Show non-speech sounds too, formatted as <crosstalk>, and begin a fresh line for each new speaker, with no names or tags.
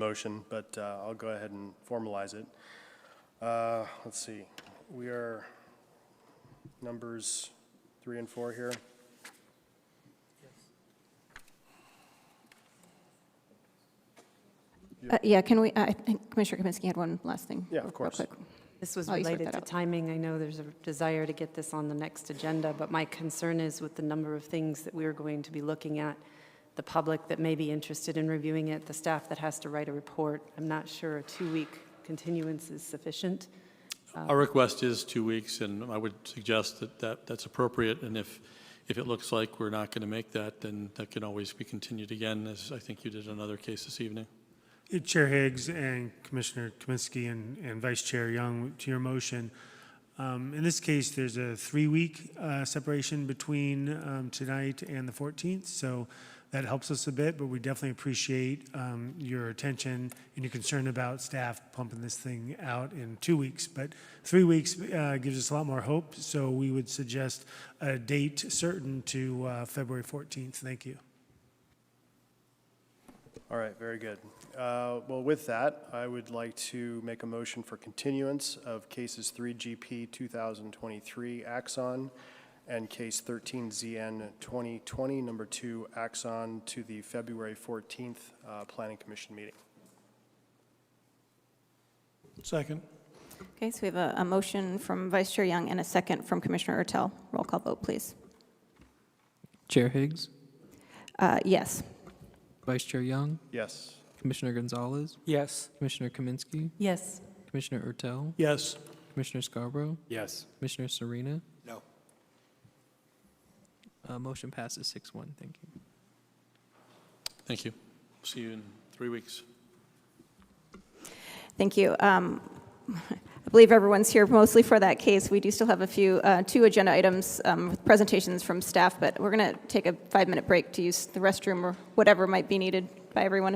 motion, but uh, I'll go ahead and formalize it. Uh, Let's see, we are numbers three and four here.
Uh, Yeah, can we, I think Commissioner Kaminsky had one last thing.
Yeah, of
real
course.
quick.
This was
Oh, you sort
related
that
to
out.
timing. I know there's a desire to get this on the next agenda, but my concern is with the number of things that we're going to be looking at, the public that may be interested in reviewing it, the staff that has to write a report. I'm not sure a two-week continuance is sufficient.
Our request is two weeks, and I would suggest that that, that's appropriate, and if, if it looks like we're not going to make that, then that can always be continued again, as I think you did in another case this evening.
Chair Higgs and Commissioner Kaminsky and, and Vice Chair Young, to your motion, um, in this case, there's a three-week uh, separation between um, tonight and the 14th, so that helps us a bit, but we definitely appreciate um, your attention and your concern about staff pumping this thing out in two weeks. But three weeks uh, gives us a lot more hope, so we would suggest a date certain to uh, February 14th. Thank you.
All right, very good. Uh, Well, with that, I would like to make a motion for continuance of cases 3GP 2023 Axon and case 13ZN 2020, number two Axon, to the February 14th uh, Planning Commission meeting.
Second.
Okay, so we have a, a motion from Vice Chair Young and a second from Commissioner Ertel. Roll call vote, please.
Chair Higgs,
Uh, Yes.
Vice Chair Young,
Yes.
Commissioner Gonzalez,
Yes.
Commissioner Kaminsky,
Yes.
Commissioner Ertel,
Yes.
Commissioner Scarborough,
Yes.
Commissioner Serena.
No.
Uh, Motion passes 6-1. Thank you.
Thank you. See you in three weeks.
Thank you. Um, <laughs> I believe everyone's here mostly for that case. We do still have a few, uh, two agenda items, um, with presentations from staff, but we're going to take a five-minute break to use the restroom or whatever might be needed by everyone